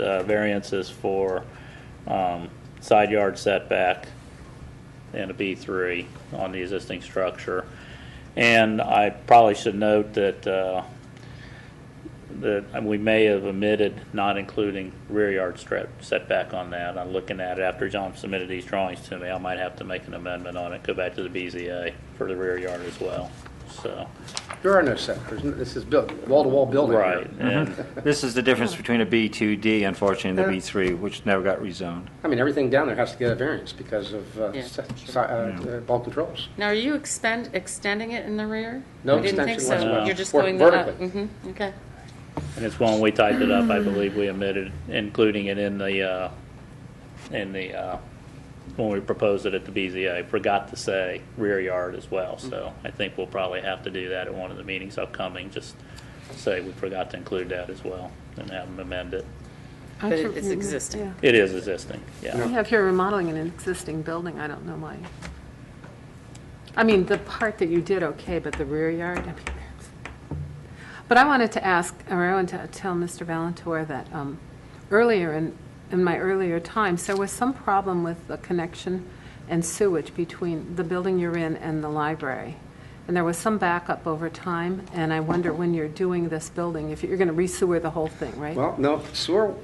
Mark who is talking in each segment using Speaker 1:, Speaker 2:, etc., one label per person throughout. Speaker 1: uh, variances for um, side yard setback and a B3 on the existing structure. And I probably should note that, uh, that we may have omitted not including rear yard strip setback on that. I'm looking at it after John submitted these drawings to me. I might have to make an amendment on it, go back to the BZA for the rear yard as well, so.
Speaker 2: There are no setbacks. This is built, wall-to-wall building. here.
Speaker 1: Right, and
Speaker 3: This is the difference between a B2D, unfortunately, and the B3, which never got rezoned.
Speaker 2: I mean, everything down there has to get a variance because of uh,
Speaker 4: Yeah.
Speaker 2: se- si- uh, uh, bulk controls.
Speaker 4: Now, are you expend, extending it in the rear?
Speaker 2: No
Speaker 4: I didn't think
Speaker 2: extension
Speaker 4: so.
Speaker 1: whatsoever.
Speaker 4: You're just
Speaker 2: Or
Speaker 4: going the up.
Speaker 2: vertically.
Speaker 4: Mm-hmm, okay.
Speaker 1: And it's when we typed it up, I believe we omitted including it in the, uh, in the, uh, when we proposed it at the BZA, forgot to say rear yard as well. So I think we'll probably have to do that at one of the meetings upcoming, just say we forgot to include that as well and have them amend it.
Speaker 4: But it- it's existing.
Speaker 1: It is existing, yeah.
Speaker 5: We have here remodeling an existing building, I don't know why. I mean, the part that you did, okay, but the rear yard, I mean, but I wanted to ask, or I wanted to tell Mr. Valentour that um, earlier in, in my earlier times, there was some problem with the connection and sewage between the building you're in and the library. And there was some backup over time, and I wonder when you're doing this building, if you're going to re-sewer the whole thing, right?
Speaker 2: Well, no, sewer,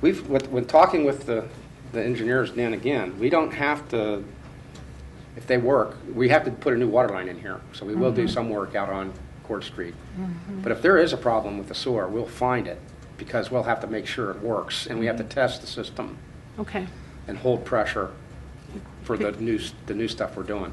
Speaker 2: we've, when when talking with the the engineers, Dan, again, we don't have to, if they work, we have to put a new water line in here. So we will do some work out on Court Street. But if there is a problem with the sewer, we'll find it because we'll have to make sure it works and we have to test the system
Speaker 5: Okay.
Speaker 2: and hold pressure for the new, s- the new stuff we're doing.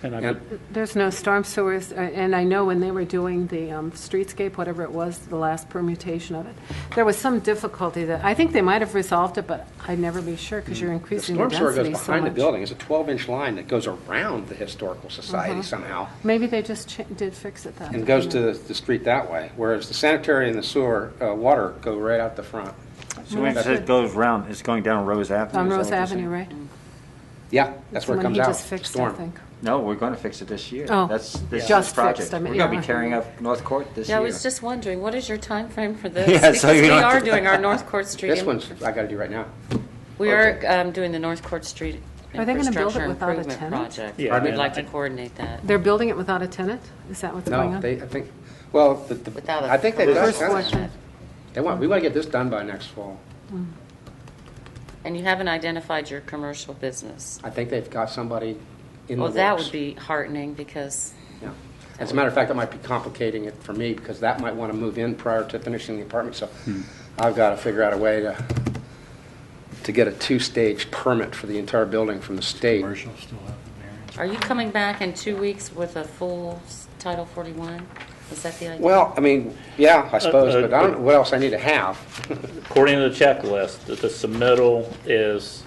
Speaker 1: And I,
Speaker 2: And
Speaker 5: There's no storm sewers, uh, and I know when they were doing the um, streetscape, whatever it was, the last permutation of it, there was some difficulty that, I think they might have resolved it, but I'd never be sure, because you're
Speaker 2: Mm. The
Speaker 5: increasing the
Speaker 2: storm sewer goes
Speaker 5: density so
Speaker 2: behind the
Speaker 5: much.
Speaker 2: building. It's a 12-inch line that goes around the Historical
Speaker 5: Uh-huh.
Speaker 2: Society somehow
Speaker 5: Maybe they just cha- did fix it that.
Speaker 2: and goes
Speaker 5: way.
Speaker 2: to the- the street that way, whereas the sanitary and the sewer uh, water go right out the front.
Speaker 3: So when it
Speaker 5: that's
Speaker 3: says
Speaker 5: good.
Speaker 3: goes round, it's going down Rose Avenue.
Speaker 5: On
Speaker 3: is that
Speaker 5: Rose
Speaker 3: what you're saying?
Speaker 5: Avenue, right?
Speaker 2: Yeah, that's where it
Speaker 5: The one
Speaker 2: comes out.
Speaker 5: He just fixed, I
Speaker 2: storm.
Speaker 5: think.
Speaker 3: No, we're going to fix it this year.
Speaker 5: Oh,
Speaker 3: That's this
Speaker 5: just
Speaker 3: year's project.
Speaker 5: fixed, I
Speaker 3: We're
Speaker 5: mean,
Speaker 3: going to be
Speaker 5: yeah.
Speaker 3: tearing up North Court this year.
Speaker 4: Yeah, I was just wondering, what is your time frame for this?
Speaker 3: Yeah, so
Speaker 4: Because
Speaker 3: you
Speaker 4: we
Speaker 3: don't-
Speaker 4: are doing our North Court Street.
Speaker 2: This
Speaker 4: in-
Speaker 2: one's, I got to do right now.
Speaker 4: We are um, doing the North Court Street
Speaker 5: Are they gonna build it
Speaker 4: infrastructure
Speaker 5: without a
Speaker 4: improvement
Speaker 5: tenant?
Speaker 4: project.
Speaker 1: Yeah,
Speaker 4: We'd
Speaker 1: and
Speaker 4: like
Speaker 1: I-
Speaker 4: to coordinate that.
Speaker 5: They're building it without a tenant? Is that what's going
Speaker 2: No,
Speaker 5: on?
Speaker 2: they, I think, well, the- the-
Speaker 4: Without a-
Speaker 2: I think they've
Speaker 4: The
Speaker 2: done,
Speaker 5: First floor tenant.
Speaker 2: they want, we want to get this done by next fall.
Speaker 4: And you haven't identified your commercial business.
Speaker 2: I think they've got somebody in the
Speaker 4: Well,
Speaker 2: works.
Speaker 4: that would be heartening because,
Speaker 2: Yeah. As a matter of fact, that might be complicating it for me because that might want to move in prior to finishing the apartment. So I've got to figure out a way to, to get a two-stage permit for the entire building from the state.
Speaker 6: Commercial still have the variance.
Speaker 4: are you coming back in two weeks with a full s- Title 41? Is that the idea?
Speaker 2: Well, I mean, yeah, I suppose,
Speaker 1: uh,
Speaker 2: but I don't know what else I need to have.
Speaker 1: according to the checklist, the the submittal is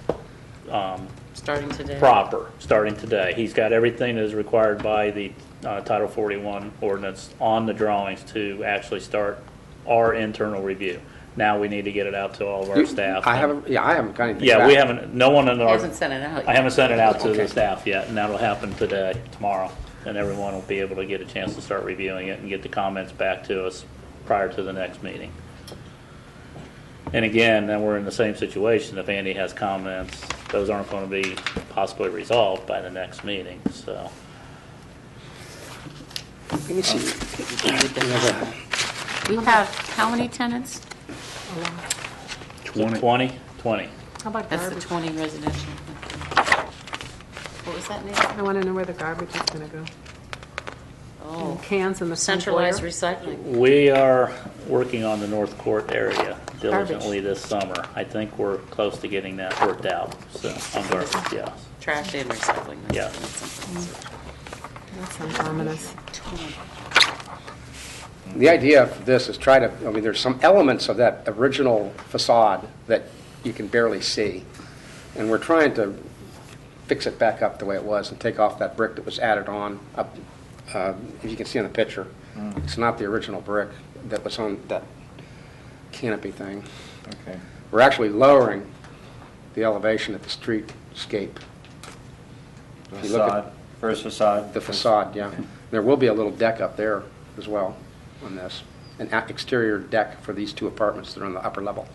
Speaker 4: Starting today?
Speaker 1: proper, starting today. He's got everything that is required by the uh, Title 41 ordinance on the drawings to actually start our internal review. Now we need to get it out to all of our staff.
Speaker 2: I haven't, yeah, I haven't got anything back.
Speaker 1: Yeah, we haven't, no one in our.
Speaker 4: He hasn't sent it out
Speaker 1: I haven't sent it out to
Speaker 2: Okay.
Speaker 1: the staff yet, and that'll happen today, tomorrow. And everyone will be able to get a chance to start reviewing it and get the comments back to us prior to the next meeting. And again, then we're in the same situation. If Andy has comments, those aren't going to be possibly resolved by the next meeting, so.
Speaker 2: Let me see.
Speaker 4: We have, how many tenants?
Speaker 1: Twenty. Twenty, twenty.
Speaker 5: How about
Speaker 4: That's the
Speaker 5: garbage?
Speaker 4: 20 residential. What was that name?
Speaker 5: I want to know where the garbage is going to go.
Speaker 4: Oh,
Speaker 5: Cans in the front foyer?
Speaker 4: centralized recycling.
Speaker 1: We are working on the North Court area diligently this summer. I think we're close to getting that worked out, so I'm going, yes.
Speaker 4: Trash and recycling. that's-
Speaker 1: Yeah.
Speaker 4: that's something.
Speaker 5: That sounds ominous.
Speaker 2: The idea of this is try to, I mean, there's some elements of that original facade that you can barely see. And we're trying to fix it back up the way it was and take off that brick that was added on up, uh, if you can see on the picture. It's not the original brick that was on that canopy thing.
Speaker 3: Okay.
Speaker 2: We're actually lowering the elevation at the streetscape, If you look at-
Speaker 3: Facade, first facade.
Speaker 2: the facade, yeah. There will be a little deck up there as well on this. an a- exterior deck for these two apartments that are on the upper level.